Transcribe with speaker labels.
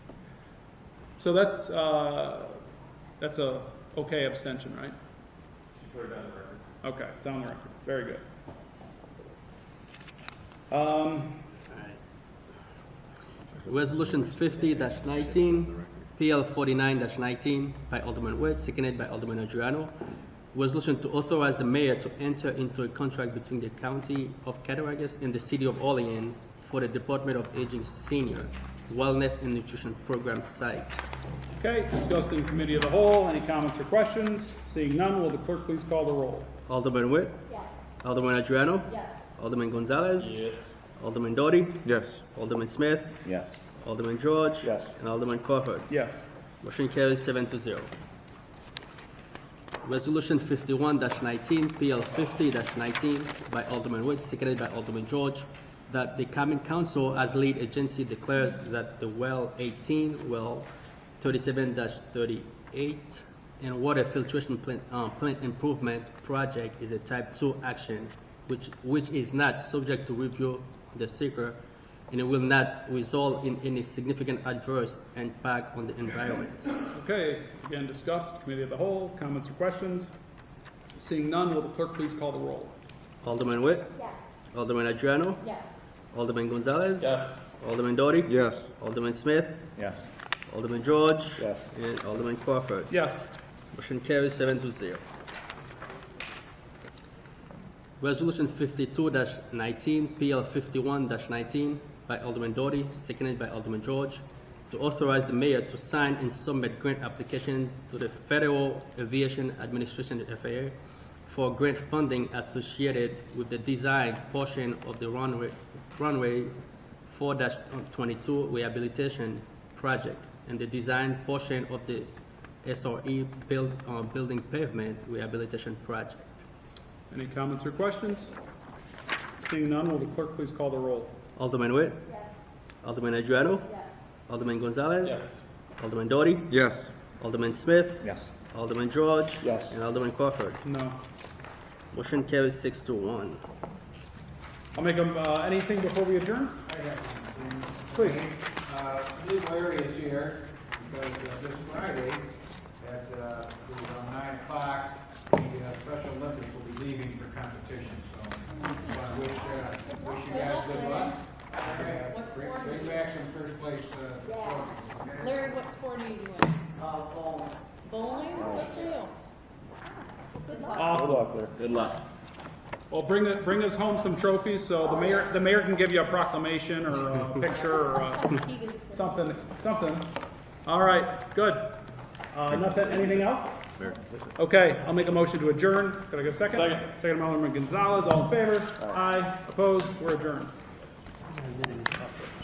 Speaker 1: So that's, uh, that's a okay abstention, right?
Speaker 2: She put it on the record.
Speaker 1: Okay, it's on the record. Very good. Um,
Speaker 3: Resolution fifty nineteen, PL forty-nine nineteen by Alderman Witt, seconded by Alderman Adriano. Resolution to authorize the mayor to enter into a contract between the county of Cattaraugus and the city of Olean for the Department of Aging Senior Wellness and Nutrition Program site.
Speaker 1: okay, discussed in committee of the whole. Any comments or questions? Seeing none, will the clerk please call the roll?
Speaker 3: Alderman Witt?
Speaker 4: Yes.
Speaker 3: Alderman Adriano?
Speaker 4: Yes.
Speaker 3: Alderman Gonzalez?
Speaker 2: Yes.
Speaker 3: Alderman Doughty?
Speaker 5: Yes.
Speaker 3: Alderman Smith?
Speaker 5: Yes.
Speaker 3: Alderman George?
Speaker 5: Yes.
Speaker 3: And Alderman Crawford?
Speaker 1: Yes.
Speaker 3: Motion carries seven to zero. Resolution fifty-one nineteen, PL fifty nineteen by Alderman Witt, seconded by Alderman George, that the common council as lead agency declares that the well eighteen, well thirty-seven thirty-eight, and water filtration plant, uh, plant improvement project is a type two action, which, which is not subject to review the seeker, and it will not result in any significant adverse impact on the environment.
Speaker 1: Okay, again, discussed, committee of the whole. Comments or questions? Seeing none, will the clerk please call the roll?
Speaker 3: Alderman Witt?
Speaker 4: Yes.
Speaker 3: Alderman Adriano?
Speaker 4: Yes.
Speaker 3: Alderman Gonzalez?
Speaker 2: Yes.
Speaker 3: Alderman Doughty?
Speaker 5: Yes.
Speaker 3: Alderman Smith?
Speaker 5: Yes.
Speaker 3: Alderman George?
Speaker 5: Yes.
Speaker 3: And Alderman Crawford?
Speaker 1: Yes.
Speaker 3: Motion carries seven to zero. Resolution fifty-two nineteen, PL fifty-one nineteen by Alderman Doughty, seconded by Alderman George, to authorize the mayor to sign and submit grant application to the Federal Aviation Administration, FAA, for grant funding associated with the design portion of the runway, runway four twenty-two rehabilitation project and the design portion of the SRE build, uh, building pavement rehabilitation project.
Speaker 1: Any comments or questions? Seeing none, will the clerk please call the roll?
Speaker 3: Alderman Witt?
Speaker 4: Yes.
Speaker 3: Alderman Adriano?
Speaker 4: Yes.
Speaker 3: Alderman Gonzalez? Alderman Doughty?
Speaker 5: Yes.
Speaker 3: Alderman Smith?
Speaker 5: Yes.
Speaker 3: Alderman George?
Speaker 5: Yes.
Speaker 3: And Alderman Crawford.
Speaker 1: No.
Speaker 3: Motion carries six to one.
Speaker 1: I'll make them, uh, anything before we adjourn? Please.
Speaker 6: Uh, Lou Larry is here because uh, this Friday at, uh, it was around nine o'clock, the uh, Special Olympics will be leaving for competition, so I wish, uh, wish you guys good luck. And, uh, Bring bring back some first place, uh, trophies, okay?
Speaker 7: Larry, what sport are you doing? bowling. Bowling? What do you?
Speaker 1: Awesome.
Speaker 2: Good luck.
Speaker 1: Well, bring it, bring us home some trophies, so the mayor, the mayor can give you a proclamation or a picture or a,
Speaker 4: Keegan said-
Speaker 1: something, something. All right, good. Uh, nothing, anything else? Okay, I'll make a motion to adjourn. Can I get a second? Second. Second by Alderman Gonzalez, all in favor? Aye. Opposed? We're adjourned.